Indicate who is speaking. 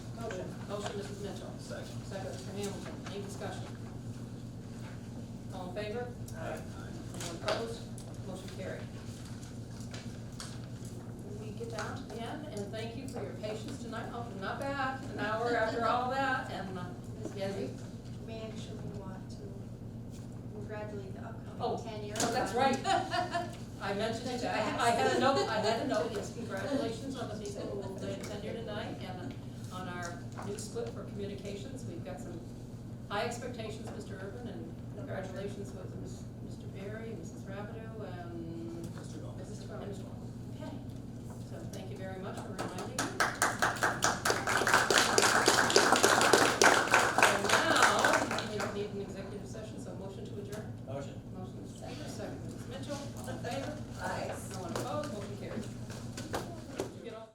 Speaker 1: Motion, Mrs. Mitchell.
Speaker 2: Second.
Speaker 1: Second, Mr. Hamilton. Any discussion? All in favor?
Speaker 2: Aye.
Speaker 1: Anyone opposed? Motion carried. We get down to the end, and thank you for your patience tonight. Oh, not bad, an hour after all that, and uh, Ms. Gessie.
Speaker 3: We actually want to congratulate the
Speaker 1: Oh,
Speaker 3: upcoming ten year.
Speaker 1: oh, that's right. I mentioned it, I I had a note, I had a note, yes, congratulations on the people who will be tenure tonight and on our new split for communications. We've got some high expectations, Mr. Urban, and congratulations with Ms. Mr. Berry, Mrs. Rabideau, and
Speaker 2: Mr. Goff.
Speaker 1: Mrs. Twelman. Okay, so thank you very much for reminding